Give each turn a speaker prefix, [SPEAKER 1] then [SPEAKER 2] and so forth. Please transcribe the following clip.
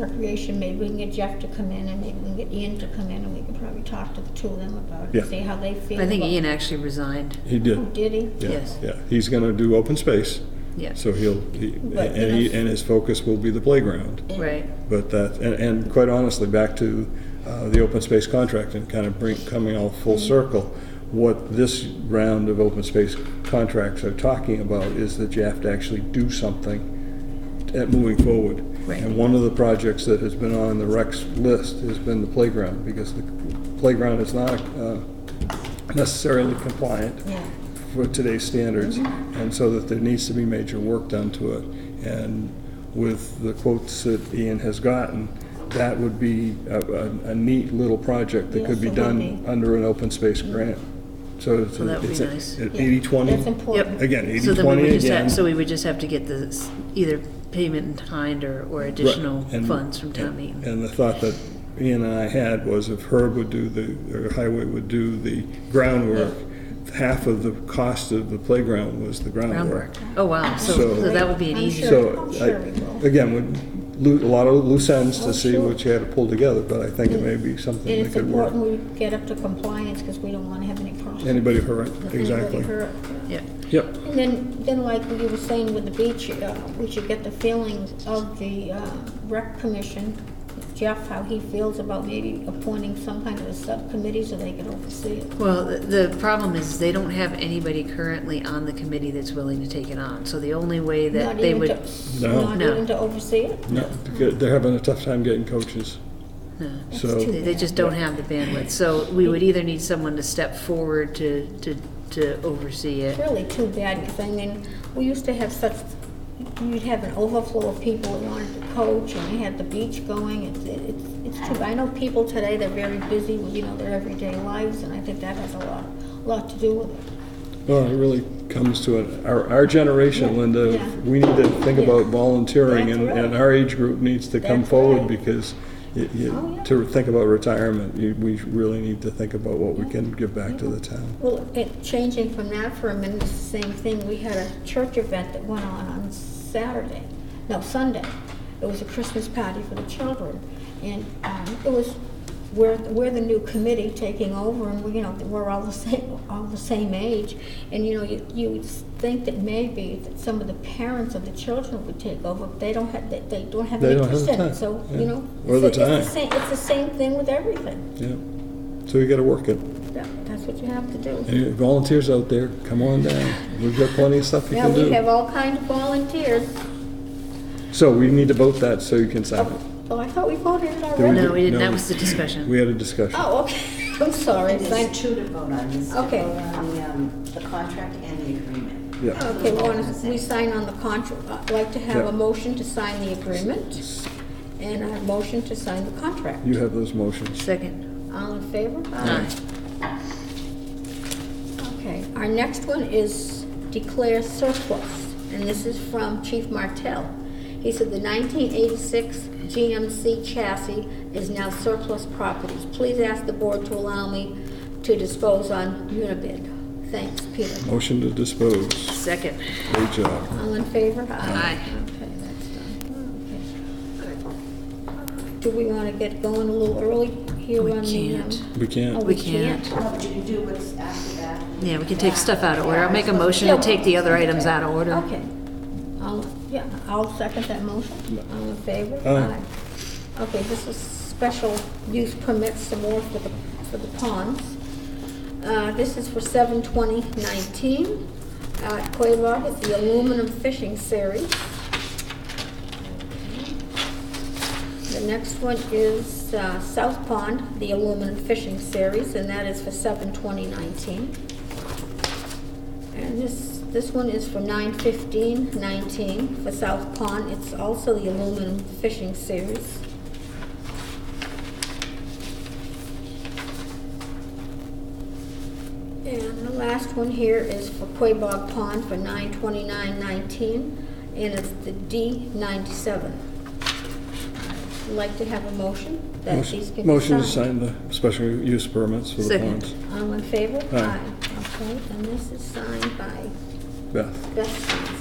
[SPEAKER 1] Recreation, maybe we can get Jeff to come in and maybe we can get Ian to come in and we can probably talk to the two of them about
[SPEAKER 2] Yeah.
[SPEAKER 1] it, see how they feel.
[SPEAKER 3] I think
[SPEAKER 1] about-
[SPEAKER 3] Ian actually resigned,
[SPEAKER 2] He
[SPEAKER 1] Oh,
[SPEAKER 2] did.
[SPEAKER 1] Did he?
[SPEAKER 2] Yeah,
[SPEAKER 3] Yes.
[SPEAKER 2] Yeah, he's gonna do open space,
[SPEAKER 3] yeah,
[SPEAKER 2] so he'll, he-
[SPEAKER 1] But,
[SPEAKER 2] and he,
[SPEAKER 1] you know-
[SPEAKER 2] and his focus will be the playground.
[SPEAKER 3] right.
[SPEAKER 2] But that, and, and quite honestly, back to uh, the open space contract and kind of bring, coming all full circle, what this round of open space contracts are talking about is that you have to actually do something at moving forward.
[SPEAKER 3] Right.
[SPEAKER 2] And one of the projects that has been on the Rex list has been the playground, because the playground is not uh, necessarily compliant
[SPEAKER 1] Yeah.
[SPEAKER 2] for today's standards,
[SPEAKER 3] Mm-hmm.
[SPEAKER 2] and so that there needs to be major work done to it. And with the quotes that Ian has gotten, that would be a, a- a neat little project that could be
[SPEAKER 1] Yes, it would be.
[SPEAKER 2] done under an open space grant. So it's,
[SPEAKER 3] So Mm-hmm. that would be
[SPEAKER 2] it's a-
[SPEAKER 3] nice.
[SPEAKER 2] an
[SPEAKER 1] Yeah. That's
[SPEAKER 2] 80/20,
[SPEAKER 1] important.
[SPEAKER 2] again,
[SPEAKER 3] So then we
[SPEAKER 2] 80/20
[SPEAKER 3] would just have,
[SPEAKER 2] again.
[SPEAKER 3] so we would just have to get the, s- either payment in kind or, or additional
[SPEAKER 2] Right, and-
[SPEAKER 3] funds from town meeting.
[SPEAKER 2] And the thought that Ian and I had was if Herb would do the, or Highway would do the groundwork, half of the cost of the playground was the
[SPEAKER 3] Groundwork. Oh, wow, so,
[SPEAKER 2] So-
[SPEAKER 3] so that would be an
[SPEAKER 1] I'm
[SPEAKER 3] easy,
[SPEAKER 1] sure.
[SPEAKER 2] So,
[SPEAKER 1] I'm
[SPEAKER 2] I-
[SPEAKER 1] sure we will.
[SPEAKER 2] again, would loot, a lot of loose ends
[SPEAKER 1] Oh,
[SPEAKER 2] to see
[SPEAKER 1] sure.
[SPEAKER 2] what you had to pull together, but I think it may be something
[SPEAKER 1] And
[SPEAKER 2] that
[SPEAKER 1] it's
[SPEAKER 2] could work.
[SPEAKER 1] important we get up to compliance because we don't want to have any problems.
[SPEAKER 2] Anybody hurt,
[SPEAKER 1] with anybody
[SPEAKER 2] exactly.
[SPEAKER 1] hurt.
[SPEAKER 3] yeah,
[SPEAKER 2] Yep.
[SPEAKER 1] And then, then like you were saying with the beach, uh, we should get the feelings of the uh, rec commission, Jeff, how he feels about maybe appointing some kind of a subcommittee so they can oversee it.
[SPEAKER 3] well, the, the problem is they don't have anybody currently on the committee that's willing to take it on, so the only way that
[SPEAKER 1] Not
[SPEAKER 3] they
[SPEAKER 1] even
[SPEAKER 3] would.
[SPEAKER 1] to-
[SPEAKER 2] No.
[SPEAKER 1] Not
[SPEAKER 3] No.
[SPEAKER 1] even to oversee it?
[SPEAKER 2] No, because they're having a tough time getting coaches,
[SPEAKER 3] no. They
[SPEAKER 2] so,
[SPEAKER 3] they just don't have the bandwidth, so we would either need someone to step forward to, to, to oversee it.
[SPEAKER 1] Really too bad, because I mean, we used to have such, you'd have an overflow of people who wanted to coach, and you had the beach going, it's, it's, it's too, bad. I know people today, they're very busy with, you know, their everyday lives, and I think that has a lot, lot to do with it.
[SPEAKER 2] well, it really comes to it. Our, our generation,
[SPEAKER 1] Yeah,
[SPEAKER 2] Linda,
[SPEAKER 1] yeah.
[SPEAKER 2] we need to think
[SPEAKER 1] Yeah.
[SPEAKER 2] about volunteering,
[SPEAKER 1] That's
[SPEAKER 2] and,
[SPEAKER 1] right.
[SPEAKER 2] and our age group needs to come
[SPEAKER 1] That's
[SPEAKER 2] forward
[SPEAKER 1] right.
[SPEAKER 2] because you,
[SPEAKER 1] Oh,
[SPEAKER 2] you,
[SPEAKER 1] yeah.
[SPEAKER 2] to think about retirement, you, we really need to think about what we can give back to the town.
[SPEAKER 1] Well, it, changing from that for a minute, it's the same thing, we had a church event that went on on Saturday, no, Sunday. It was a Christmas party for the children, and, um, it was, we're, we're the new committee taking over, and we, you know, we're all the same, all the same age. And, you know, you, you would think that maybe that some of the parents of the children would take over, but they don't have, they, they don't have
[SPEAKER 2] They
[SPEAKER 1] an
[SPEAKER 2] don't have
[SPEAKER 1] interest
[SPEAKER 2] the
[SPEAKER 1] in
[SPEAKER 2] time,
[SPEAKER 1] it, so,
[SPEAKER 2] yeah.
[SPEAKER 1] you know.
[SPEAKER 2] Or the
[SPEAKER 1] it's it's
[SPEAKER 2] time.
[SPEAKER 1] same- It's the same thing with everything,
[SPEAKER 2] Yeah, so you gotta work it.
[SPEAKER 1] That- that's what you have to do.
[SPEAKER 2] Any volunteers out there, come on down. We've got plenty of stuff you
[SPEAKER 1] Yeah,
[SPEAKER 2] can
[SPEAKER 1] we have
[SPEAKER 2] do.
[SPEAKER 1] all kinds of volunteers.
[SPEAKER 2] So we need to vote that so you can sign it.
[SPEAKER 1] Oh, I thought we voted it
[SPEAKER 2] Did
[SPEAKER 1] already.
[SPEAKER 3] No, we didn't,
[SPEAKER 2] No.
[SPEAKER 3] that was the discussion.
[SPEAKER 2] We had a discussion.
[SPEAKER 1] Oh, okay, I'm sorry.
[SPEAKER 4] There's
[SPEAKER 1] Okay,
[SPEAKER 4] two to vote on, this
[SPEAKER 1] Okay.
[SPEAKER 4] on the, um, the contract and the agreement.
[SPEAKER 2] Yeah.
[SPEAKER 1] we want to, we sign on the contract. I'd like to have a motion to sign the agreement and a motion to sign the contract.
[SPEAKER 2] You have those motions.
[SPEAKER 3] Second,
[SPEAKER 1] All in favor?
[SPEAKER 3] aye.
[SPEAKER 1] Okay, our next one is declare surplus, and this is from Chief Martell. He said the 1986 GMC chassis is now surplus properties. Please ask the board to allow me to dispose on Unibid. Thanks, Peter.
[SPEAKER 2] Motion to dispose.
[SPEAKER 3] Second,
[SPEAKER 2] Great job.
[SPEAKER 1] All in favor?
[SPEAKER 3] Aye.
[SPEAKER 1] Okay, that's done. Okay. Good. Do we want to get going a little early here
[SPEAKER 3] We
[SPEAKER 1] on the... um,
[SPEAKER 3] can't.
[SPEAKER 2] We
[SPEAKER 1] Oh,
[SPEAKER 2] can't.
[SPEAKER 1] we
[SPEAKER 3] We can't.
[SPEAKER 1] can't?
[SPEAKER 4] No, but you can do what's after that.
[SPEAKER 3] yeah, we can take stuff out of order. I'll make a motion to take the other items out of order.
[SPEAKER 1] Okay. I'll, yeah, I'll second that motion. All in favor?
[SPEAKER 2] Aye.
[SPEAKER 1] Aye. Okay, this is special use permits some more for the, for the ponds. Uh, this is for seven twenty nineteen. Uh, Quabog is the aluminum fishing series. The next one is, uh, South Pond, the aluminum fishing series, and that is for seven twenty nineteen. And this, this one is for nine fifteen nineteen for South Pond. It's also the aluminum fishing series. And the last one here is for Quabog Pond for nine twenty-nine nineteen, and it's the D ninety-seven. I'd like to have a motion that these can be signed.
[SPEAKER 2] Motion to sign the special use permits for the
[SPEAKER 3] Second.
[SPEAKER 2] ponds.
[SPEAKER 1] All in favor?
[SPEAKER 2] Aye.
[SPEAKER 1] Okay, and this is signed by
[SPEAKER 2] Beth.
[SPEAKER 1] Beth.